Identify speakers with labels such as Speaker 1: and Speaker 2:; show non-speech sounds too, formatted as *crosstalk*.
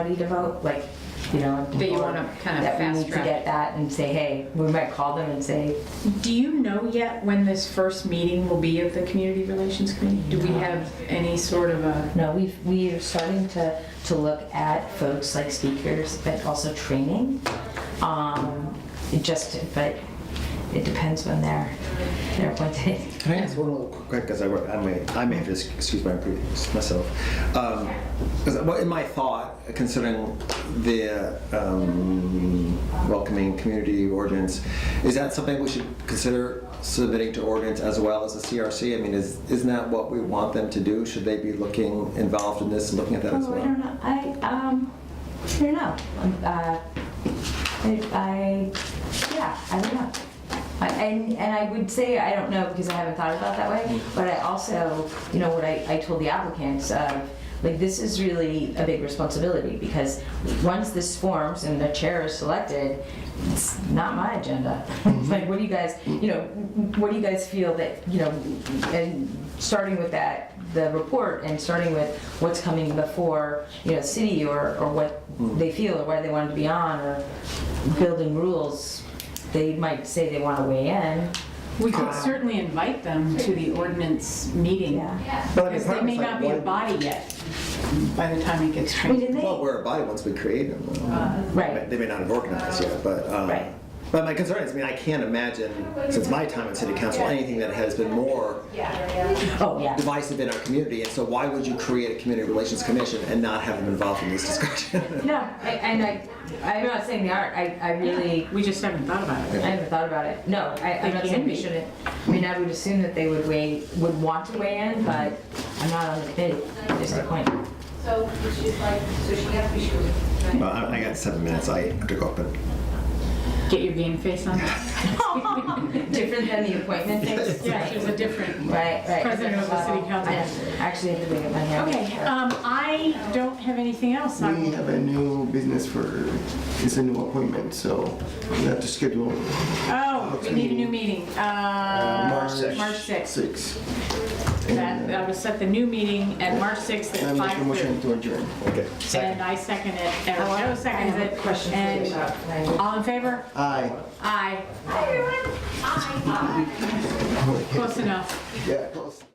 Speaker 1: ready to vote, like, you know.
Speaker 2: That you
Speaker 1: or
Speaker 2: wanna kind of
Speaker 1: That we
Speaker 2: fast
Speaker 1: need to
Speaker 2: track.
Speaker 1: get that and say, hey, we might call them and say,
Speaker 2: Do you know yet when this first meeting will be of the Community Relations Committee? Do we have any sort of a,
Speaker 1: no, we've, we are starting to, to look at folks like speakers, but also training. Um, it just, but it depends when they're, they're appointed. *laughs*
Speaker 3: Can I ask one little quick, quick as I work, I may, I may have to excuse my previous myself. Um, 'cause what in my thought, considering the um, welcoming community ordinance, is that something we should consider submitting to ordinance as well as the CRC? I mean, is, isn't that what we want them to do? Should they be looking, involved in this, and looking at that as
Speaker 1: Oh, I don't
Speaker 3: well?
Speaker 1: know, I, um, I don't know. Uh, I, I, yeah, I don't know. I- And, and I would say, I don't know, because I haven't thought about it that way,
Speaker 3: Mm.
Speaker 1: but I also, you know, what I, I told the applicants of, like, this is really a big responsibility, because once this forms and the chair is selected, it's not my agenda. It's *laughs* like, what do you guys, you know, what do you guys feel that, you know, and starting with that, the report, and starting with what's coming before, you know, city, or, or what they feel, or why they want to be on, or building rules, they might say they want to weigh in.
Speaker 2: we could certainly invite them to the ordinance meeting.
Speaker 3: But I mean,
Speaker 2: Because
Speaker 3: part
Speaker 2: they
Speaker 3: of
Speaker 2: may
Speaker 3: it's like,
Speaker 2: not be a
Speaker 3: why-
Speaker 2: body yet by the time it gets
Speaker 1: I mean,
Speaker 2: trained.
Speaker 1: did
Speaker 3: Well,
Speaker 1: they?
Speaker 3: we're a body once we create them.
Speaker 1: Right.
Speaker 3: They may not have organized yet, but, um,
Speaker 1: Right.
Speaker 3: but my concern is, I mean, I can't imagine, since my time in city council, anything that has been more
Speaker 1: Oh, yeah.
Speaker 3: divisive in our community, and so why would you create a community relations commission and not have them involved in this discussion?
Speaker 1: No, I- and I, I'm not saying they aren't, I, I really,
Speaker 2: We just haven't thought about
Speaker 1: I
Speaker 2: it.
Speaker 1: haven't thought about it. No, I, I'm
Speaker 2: They
Speaker 1: not
Speaker 2: can
Speaker 1: saying we
Speaker 2: be.
Speaker 1: shouldn't. I mean, I would assume that they would weigh, would want to weigh in, but I'm not on the committee, just a point.
Speaker 4: So she's like, so she has to be shooting, right?
Speaker 3: Well, I, I got seven minutes, I have to go up and.
Speaker 2: Get your game face on.
Speaker 1: *laughs* Different than the appointment things.
Speaker 2: Yeah, there's a different.
Speaker 1: Right, right.
Speaker 2: President of the city council.
Speaker 1: I actually have to look at my hair.
Speaker 2: Okay, um, I don't have anything else. on-
Speaker 5: We have a new business for, it's a new appointment, so we have to schedule.
Speaker 2: Oh, we need a new meeting. Uh, March 6th.
Speaker 5: Six.
Speaker 2: That, I will set the new meeting at March 6th
Speaker 5: uh, And I
Speaker 2: at
Speaker 5: make a
Speaker 2: 5:30.
Speaker 5: motion to adjourn.
Speaker 3: Okay.
Speaker 2: And I second it, and Joe seconds
Speaker 1: I have
Speaker 2: it.
Speaker 1: a question for you
Speaker 2: And
Speaker 1: about language.
Speaker 2: All in favor?
Speaker 5: Aye.
Speaker 2: Aye. Close enough.
Speaker 5: Yeah, close.